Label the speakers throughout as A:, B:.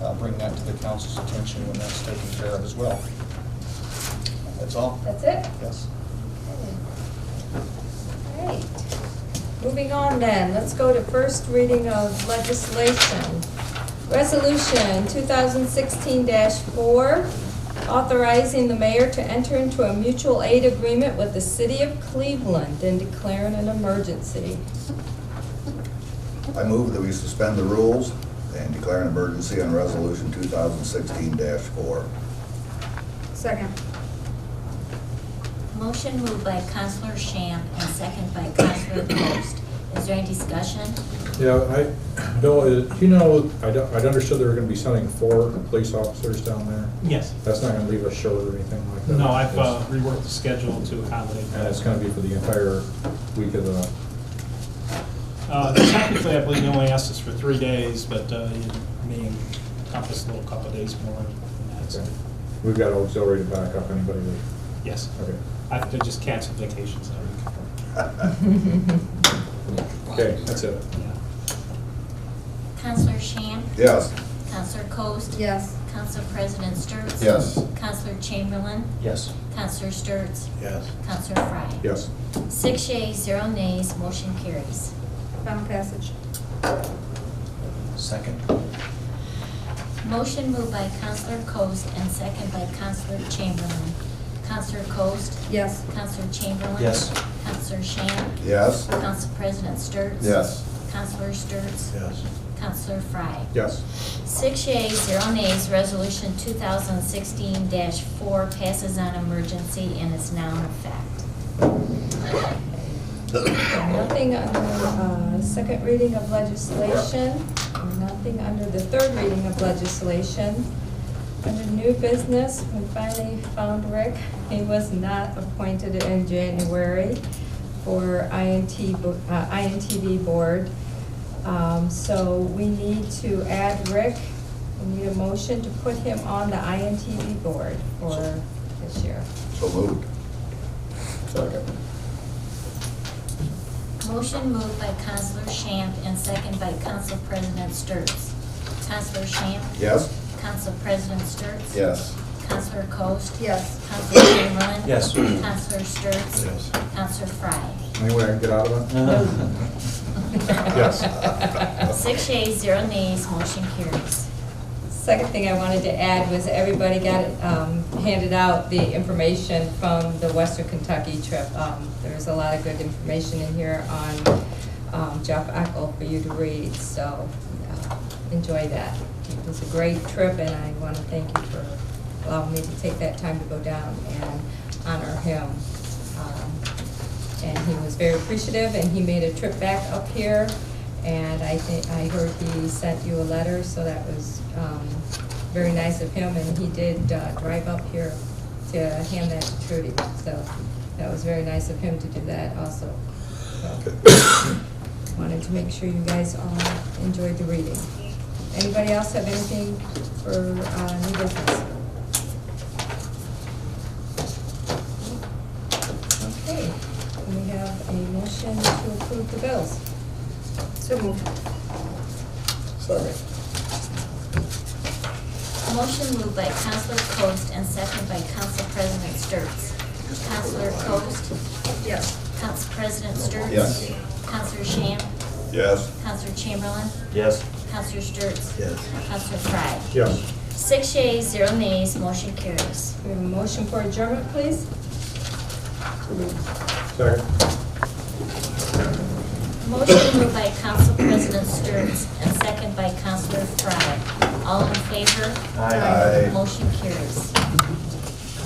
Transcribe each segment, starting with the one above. A: I'll uh, bring that to the council's attention when that's taken care of as well. That's all?
B: That's it?
A: Yes.
B: Alright. Moving on then, let's go to first reading of legislation. Resolution 2016-4, authorizing the mayor to enter into a mutual aid agreement with the city of Cleveland and declaring an emergency.
C: I move that we suspend the rules and declare an emergency on Resolution 2016-4.
B: Second.
D: Motion moved by Counselor Shamp and second by Counselor Coast. Is there any discussion?
E: Yeah, I, Bill, uh, you know, I don't- I'd understood they were gonna be sending four police officers down there.
F: Yes.
E: That's not gonna leave us short or anything like that.
F: No, I've uh,
E: It's-
F: reworked the schedule to accommodate
E: And it's
F: that.
E: gonna be for the entire week of the,
F: Uh, Technically, I believe they only asked us for three days, but uh, you may encompass a little couple of days more than that. so-
E: okay. We've got auxiliary to back up anybody. that-
F: Yes.
E: Okay.
F: I have to just cancel vacations that week.
E: Okay, that's it.
F: Yeah.
D: Counselor Shamp?
C: Yes.
D: Counselor Coast?
B: Yes.
D: Council President Sturts?
C: Yes.
D: Counselor Chamberlain?
A: Yes.
D: Counselor Sturts?
C: Yes.
D: Counselor Frye?
E: Yes.
D: Six yeas, zero nays, motion carries.
B: Final passage.
A: Second?
D: Motion moved by Counselor Coast and second by Counselor Chamberlain. Counselor Coast?
B: Yes.
D: Counselor Chamberlain?
A: Yes.
D: Counselor Shamp?
C: Yes?
D: Council President Sturts?
C: Yes.
D: Counselor Sturts?
C: Yes.
D: Counselor Frye?
E: Yes.
D: Six yeas, zero nays, resolution two thousand sixteen four passes on emergency and is now in effect.
B: Nothing under uh, second reading of legislation, and nothing under the third reading of legislation. Under new business, we finally found Rick. He was not appointed in January for INT, bo- uh, INTV Board. Um, So we need to add Rick, we need a motion to put him on the INTV Board for this year.
C: So moved. Second.
D: Motion moved by Counselor Shamp and second by Council President Sturts. Counselor Shamp?
C: Yes?
D: Council President Sturts?
C: Yes.
D: Counselor Coast?
B: Yes.
D: Counselor Chamberlain?
A: Yes.
D: Counselor Sturts?
C: Yes.
D: Counselor Frye?
E: Any way I can get out of that?
C: Yes.
D: Six yeas, zero nays, motion carries.
B: Second thing I wanted to add was everybody got um, handed out the information from the Western Kentucky trip. Um, There's a lot of good information in here on um, Jeff Eckel for you to read, so uh, enjoy that. It was a great trip, and I want to thank you for allowing me to take that time to go down and honor him. Um, and he was very appreciative, and he made a trip back up here, and I think, I heard he sent you a letter, so that was um, very nice of him, and he did uh, drive up here to hand that to Trudy, so that was very nice of him to do that also. So, Wanted to make sure you guys all enjoyed the reading. Anybody else have anything for uh, new business? Okay, we have a motion to approve the bills. So moved.
C: Sorry.
D: Motion moved by Counselor Coast and second by Council President Sturts. Counselor Coast?
B: Yes.
D: Council President Sturts?
C: Yes.
D: Counselor Shamp?
C: Yes.
D: Counselor Chamberlain?
A: Yes.
D: Counselor Sturts?
C: Yes.
D: Counselor Frye?
E: Yes.
D: Six yeas, zero nays, motion carries.
B: We have a motion for adjournment, please.
E: Second.
D: Motion moved by Council President Sturts and second by Counselor Frye. All in favor?
C: Aye. Aye.
D: Motion carries.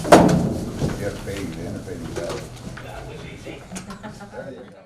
C: You have to pay, you have to pay, you got it. There you go.